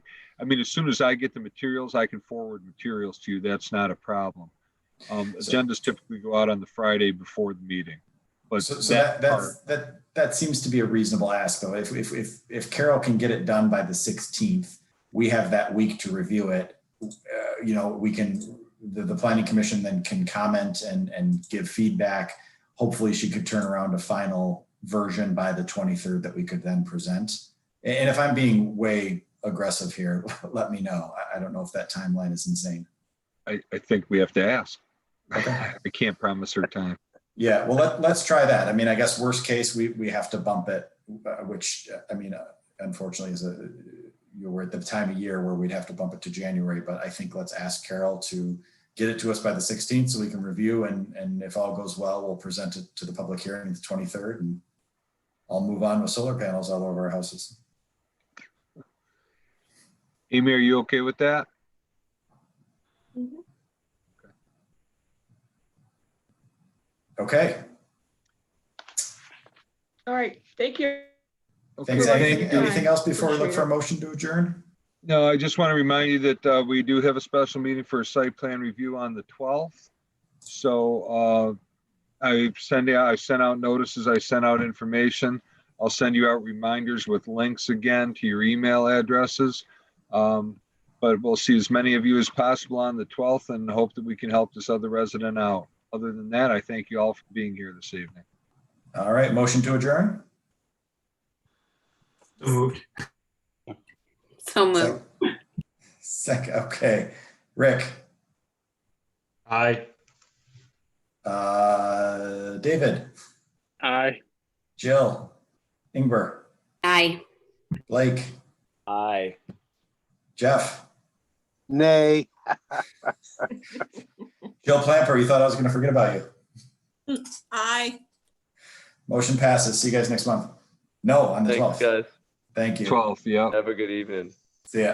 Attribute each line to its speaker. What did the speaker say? Speaker 1: I mean, as soon as I get the materials, I can forward materials to you. That's not a problem. Um,
Speaker 2: So-
Speaker 1: agendas typically go out on the Friday before the meeting. But
Speaker 2: So, so
Speaker 1: that
Speaker 2: that,
Speaker 1: part,
Speaker 2: that's, that, that seems to be a reasonable ask though. If, if, if, if Carol can get it done by the sixteenth, we have that week to review it. Uh, you know, we can, the, the planning commission then can comment and, and give feedback. Hopefully she could turn around a final version by the twenty-third that we could then present. A- And, if I'm being way aggressive here, let me know. I, I don't know if that timeline is insane.
Speaker 1: I, I think we have to ask.
Speaker 2: Okay.
Speaker 1: I can't promise her time.
Speaker 2: Yeah, well, let, let's try that. I mean, I guess worst case, we, we have to bump it, uh, which, uh, I mean, uh, unfortunately is a, you were at the time of year where we'd have to bump it to January, but I think let's ask Carol to get it to us by the 16th so we can review and, and if all goes well, we'll present it to the public hearing the 23rd and I'll move on with solar panels all over our houses.
Speaker 1: Amy, are you okay with that?
Speaker 3: Mm-hmm.
Speaker 2: Okay,
Speaker 3: All right, thank you.
Speaker 1: Okay.
Speaker 2: thanks.
Speaker 3: Thank
Speaker 2: Anything,
Speaker 3: you.
Speaker 2: anything else before we look for a motion to adjourn?
Speaker 1: No, I just want to remind you that uh, we do have a special meeting for a site plan review on the 12th. So uh, I send out, I sent out notices, I sent out information. I'll send you out reminders with links again to your email addresses. Um, But we'll see as many of you as possible on the 12th and hope that we can help this other resident out. Other than that, I thank you all for being here this evening.
Speaker 2: All right, motion to adjourn?
Speaker 4: Moved.
Speaker 5: So moved.
Speaker 2: Sec, okay. Rick?
Speaker 4: Aye.
Speaker 2: Uh, David,
Speaker 4: Aye.
Speaker 2: Jill, Ingber,
Speaker 5: Aye.
Speaker 2: Blake,
Speaker 4: Aye.
Speaker 2: Jeff,
Speaker 6: Nay.
Speaker 2: Jill Plamper. You thought I was going to forget about you.
Speaker 7: Aye.
Speaker 2: Motion passes. See you guys next month. No, on the
Speaker 8: Thanks,
Speaker 2: 12th.
Speaker 8: guys.
Speaker 2: Thank you.
Speaker 1: 12th, yeah.
Speaker 8: Have a good evening.
Speaker 2: See ya.